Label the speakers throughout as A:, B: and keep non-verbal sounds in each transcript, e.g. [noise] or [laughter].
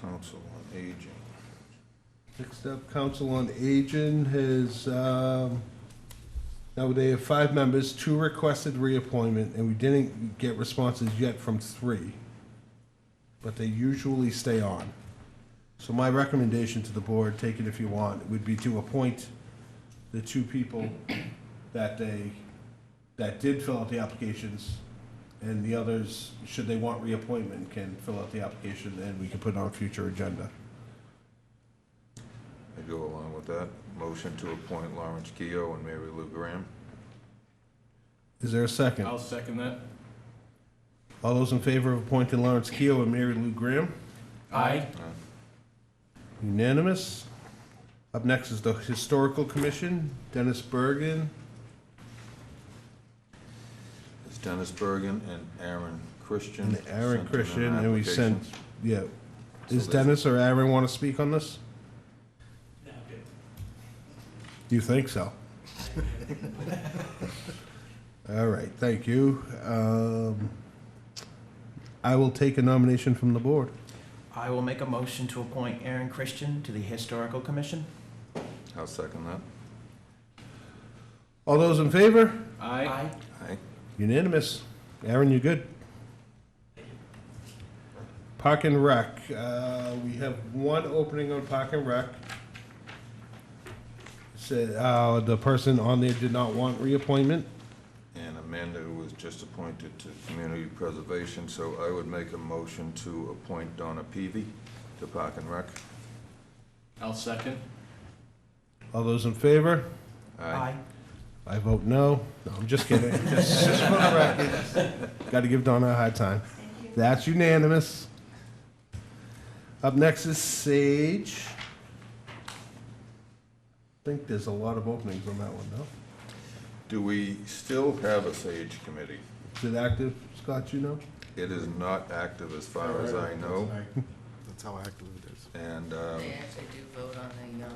A: Council on Aging.
B: Next up, Council on Aging has, um, now they have five members, two requested reappointment, and we didn't get responses yet from three. But they usually stay on. So my recommendation to the board, take it if you want, would be to appoint the two people that they, that did fill out the applications, and the others, should they want reappointment, can fill out the application, and we can put it on a future agenda.
A: I go along with that. Motion to appoint Lawrence Keough and Mary Lou Graham.
B: Is there a second?
C: I'll second that.
B: All those in favor of appointing Lawrence Keough and Mary Lou Graham?
C: Aye.
B: Unanimous. Up next is the Historical Commission, Dennis Bergen.
A: It's Dennis Bergen and Aaron Christian.
B: And Aaron
A: sent in
B: Christian,
A: their
B: and we sent-
A: applications.
B: Yeah. Does
A: So that's-
B: Dennis or Aaron want to speak on this? Do you think so? [laughs] All right, thank you. Um, I will take a nomination from the board.
D: I will make a motion to appoint Aaron Christian to the Historical Commission.
A: I'll second that.
B: All those in favor?
C: Aye.
A: Aye.
B: Unanimous. Aaron, you good? Park and Rec, uh, we have one opening on Park and Rec. Said, uh, the person on there did not want reappointment.
A: And Amanda was just appointed to Community Preservation, so I would make a motion to appoint Donna Peavy to Park and Rec.
C: I'll second.
B: All those in favor? I vote no. No, I'm just kidding. [laughs] Just just for the record. Got to give Donna a hard time. That's unanimous. Up next is Sage. I think there's a lot of openings on that one, no?
A: Do we still have a Sage Committee?
B: Is it active, Scott, you know?
A: It is not active as far as I know,
E: That's how active it is.
A: and, um,
F: They actually do vote on the, uh,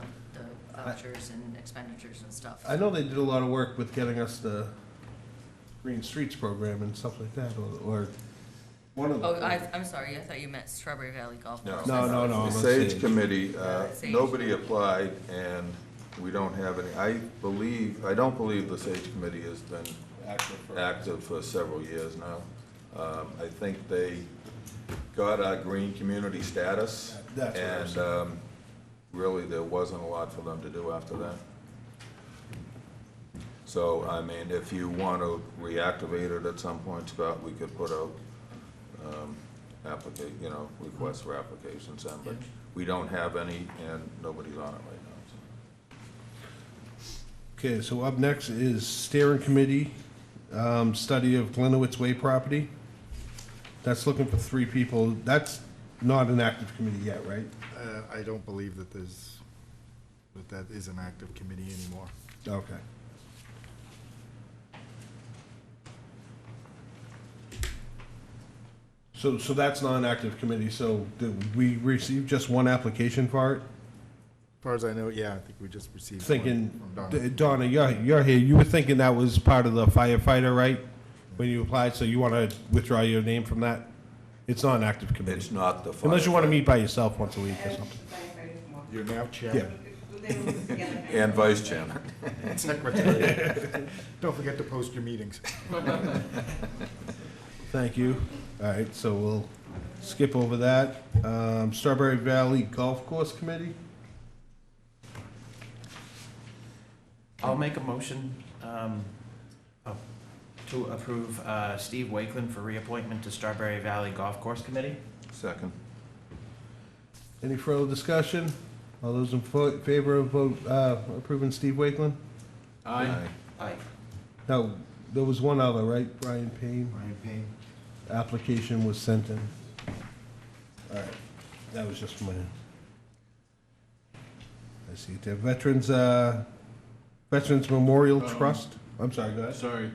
F: the vouchers and expenditures and stuff.
B: I know they did a lot of work with getting us the Green Streets program and stuff like that, or, or one of the.
F: Oh, I, I'm sorry, I thought you meant Strawberry Valley Golf
A: no.
F: Course.
B: No, no, no, I'm
A: The
B: on
A: Sage
B: Sage.
A: Committee, uh,
F: Sage.
A: nobody applied, and we don't have any, I believe, I don't believe the Sage Committee has been
B: Active for-
A: active for several years now. Um, I think they got our green community status.
B: That's what I'm
A: And um, really, there wasn't a lot for them to do after that. So, I mean, if you want to reactivate it at some point, Scott, we could put out um, applica, you know, requests for applications in, but we don't have any, and nobody's on it right now. so.
B: Okay, so up next is steering committee, um, study of Glenowitz Way property. That's looking for three people. That's not an active committee yet, right?
E: Uh, I don't believe that there's, that that is an active committee anymore.
B: Okay. So, so that's not an active committee, so did we received just one application for it?
E: As far as I know, yeah, I think we just received one
B: Thinking,
E: from Donna.
B: D- Donna, you're, you're here, you were thinking that was part of the firefighter, right? When you applied, so you want to withdraw your name from that? It's not an active
A: It's
B: committee.
A: not the.
B: Unless you want to
A: firefighter.
B: meet by yourself once a week or something.
E: You're now
B: Yeah.
E: chairman
A: And vice chairman.
E: and secretary.
B: [laughs]
E: Don't forget to post your meetings.
B: Thank you. All right, so we'll skip over that. Um, Strawberry Valley Golf Course Committee?
D: I'll make a motion um, uh, to approve uh, Steve Wakeland for reappointment to Strawberry Valley Golf Course Committee.
A: Second.
B: Any further discussion? All those in fo- favor of vote, uh, approving Steve Wakeland?
C: Aye.
D: Aye.
B: No, there was one other, right? Brian Payne?
D: Ryan Payne.
B: Application was sent in. All right, that was just my. I see it there. Veterans, uh, Veterans Memorial
C: Um,
B: Trust? I'm sorry, go ahead.
C: Sorry,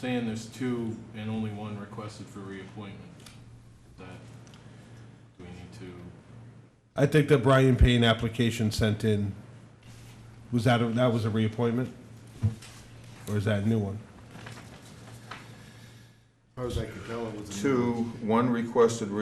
C: saying there's two and only one requested for reappointment. That, do we need to,
B: I think the Brian Payne application sent in, was that, a- that was a reappointment? Or is that a new one?
E: As far as I could tell, it was. a-
A: Two, one requested